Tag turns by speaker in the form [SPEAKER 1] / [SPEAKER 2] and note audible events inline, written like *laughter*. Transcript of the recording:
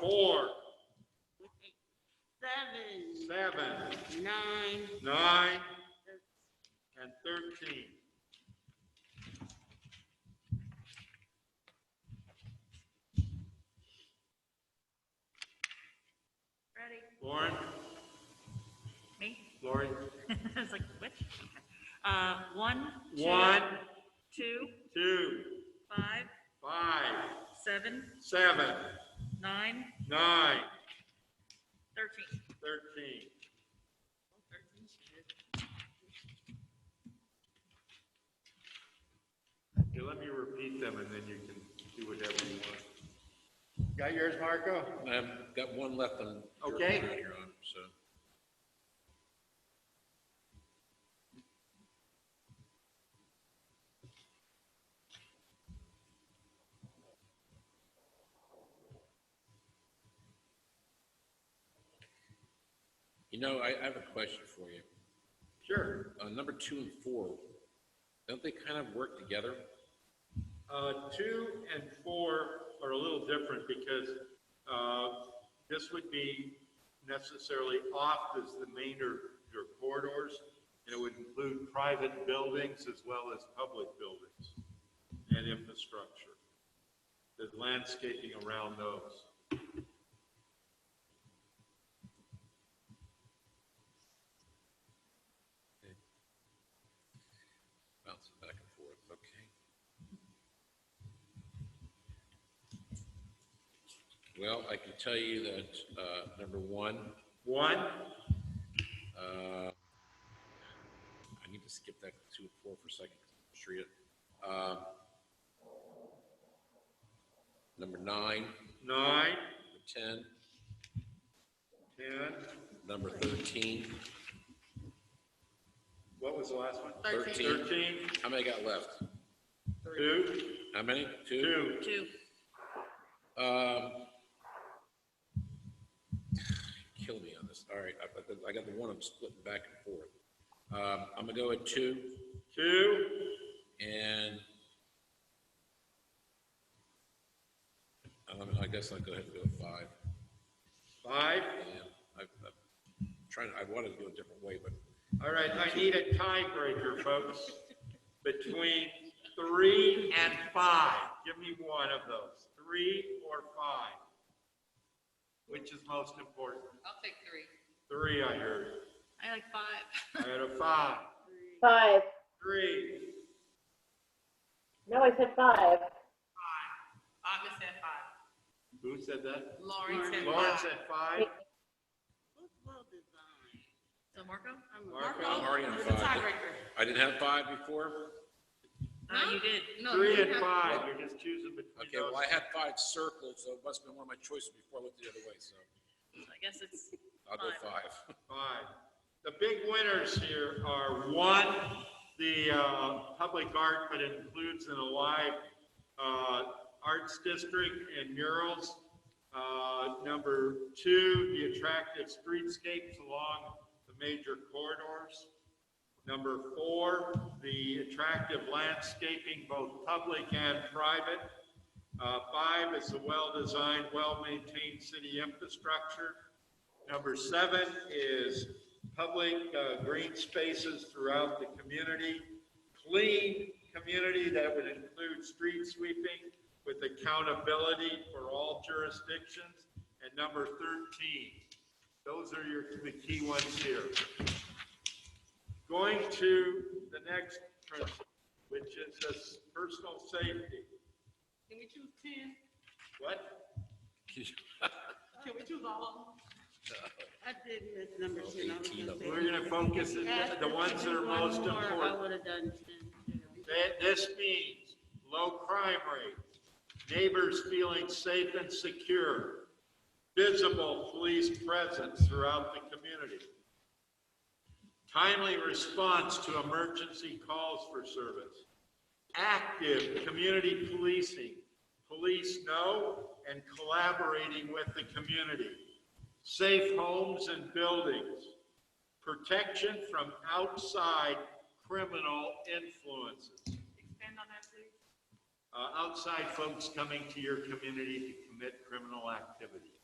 [SPEAKER 1] four,
[SPEAKER 2] seven,
[SPEAKER 1] seven,
[SPEAKER 2] nine,
[SPEAKER 1] nine, and thirteen.
[SPEAKER 3] Ready?
[SPEAKER 1] Lauren,
[SPEAKER 3] Me? *laughs*
[SPEAKER 1] Lori,
[SPEAKER 3] I was like, which? Uh, one, two,
[SPEAKER 1] one,
[SPEAKER 3] two,
[SPEAKER 1] two,
[SPEAKER 3] five,
[SPEAKER 1] five,
[SPEAKER 3] seven,
[SPEAKER 1] seven,
[SPEAKER 3] nine,
[SPEAKER 1] nine,
[SPEAKER 3] thirteen.
[SPEAKER 1] thirteen. Okay, let me repeat them and then you can do whatever you want. Got yours, Marco?
[SPEAKER 4] I've got one left on.
[SPEAKER 1] Okay.
[SPEAKER 4] Your Honor, so. You know, I, I have a question for you.
[SPEAKER 1] Sure.
[SPEAKER 4] Uh, number two and four, don't they kind of work together?
[SPEAKER 1] Uh, two and four are a little different because, uh, this would be necessarily off as the main or your corridors. And it would include private buildings as well as public buildings and infrastructure. The landscaping around those.
[SPEAKER 4] Bounce it back and forth, okay. Well, I can tell you that, uh, number one,
[SPEAKER 1] One,
[SPEAKER 4] uh, I need to skip that two and four for a second, 'cause I'm sure you- um, Number nine,
[SPEAKER 1] nine,
[SPEAKER 4] number ten,
[SPEAKER 1] ten,
[SPEAKER 4] number thirteen.
[SPEAKER 1] what was the last one?
[SPEAKER 4] Thirteen.
[SPEAKER 1] Thirteen,
[SPEAKER 4] How many got left?
[SPEAKER 1] two,
[SPEAKER 4] How many? Two?
[SPEAKER 1] two,
[SPEAKER 3] Two,
[SPEAKER 4] Um, Kill me on this. All right, I- I got- I got the one I'm splitting back and forth. Um, I'm gonna go with two.
[SPEAKER 1] two,
[SPEAKER 4] And um, I guess I'll go ahead and go with five.
[SPEAKER 1] five.
[SPEAKER 4] And I, I'm trying, I wanted to go a different way, but
[SPEAKER 1] All right, I need a tiebreaker, folks, between three and five. Give me one of those, three or five. Which is most important?
[SPEAKER 2] I'll take three.
[SPEAKER 1] Three, I heard.
[SPEAKER 3] I like five.
[SPEAKER 1] I had a five,
[SPEAKER 5] Five.
[SPEAKER 1] three.
[SPEAKER 5] No, I said five.
[SPEAKER 2] Five. August said five.
[SPEAKER 1] Who said that?
[SPEAKER 2] Lauren said
[SPEAKER 1] Lauren
[SPEAKER 2] five.
[SPEAKER 1] said five.
[SPEAKER 2] Look well designed.
[SPEAKER 3] So Marco?
[SPEAKER 2] I'm-
[SPEAKER 1] Marco,
[SPEAKER 4] I'm already on
[SPEAKER 2] Marco,
[SPEAKER 4] five.
[SPEAKER 2] the tiebreaker.
[SPEAKER 4] I didn't have five before.
[SPEAKER 3] No, Uh, you did.
[SPEAKER 2] No, you
[SPEAKER 1] Three and
[SPEAKER 2] have-
[SPEAKER 1] five, you're just choosing between
[SPEAKER 4] Okay,
[SPEAKER 1] those.
[SPEAKER 4] well, I had five circled, so it must have been one of my choices before I looked the other way, so
[SPEAKER 3] I guess it's
[SPEAKER 4] I'll go
[SPEAKER 3] Five.
[SPEAKER 4] five.
[SPEAKER 1] Five. The big winners here are, one, the uh, public art, but includes an alive uh, arts district and murals. Uh, Number two, the attractive streetscapes along the major corridors. Number four, the attractive landscaping, both public and private. Uh, Five is the well-designed, well-maintained city infrastructure. Number seven is public uh, green spaces throughout the community. Clean community, that would include street sweeping with accountability for all jurisdictions. And number 13, those are your, the key ones here. Going to the next principle, which is this personal safety.
[SPEAKER 2] Can we choose ten?
[SPEAKER 1] What?
[SPEAKER 2] *laughs* Can we choose all of them? I did miss number
[SPEAKER 4] Well,
[SPEAKER 2] ten. I was
[SPEAKER 4] 18
[SPEAKER 2] gonna
[SPEAKER 4] of
[SPEAKER 2] say-
[SPEAKER 1] We're going to focus on
[SPEAKER 2] Ask
[SPEAKER 1] the
[SPEAKER 2] if
[SPEAKER 1] ones
[SPEAKER 2] we
[SPEAKER 1] that
[SPEAKER 2] do
[SPEAKER 1] are
[SPEAKER 2] one
[SPEAKER 1] most
[SPEAKER 2] more, I
[SPEAKER 1] important.
[SPEAKER 2] would have done ten too.
[SPEAKER 1] That, this means low crime rate, neighbors feeling safe and secure, visible police presence throughout the community, timely response to emergency calls for service, active community policing, police know and collaborating with the community, safe homes and buildings, protection from outside criminal influences.
[SPEAKER 2] Expand on that, please.
[SPEAKER 1] Uh, outside folks coming to your community to commit criminal activity.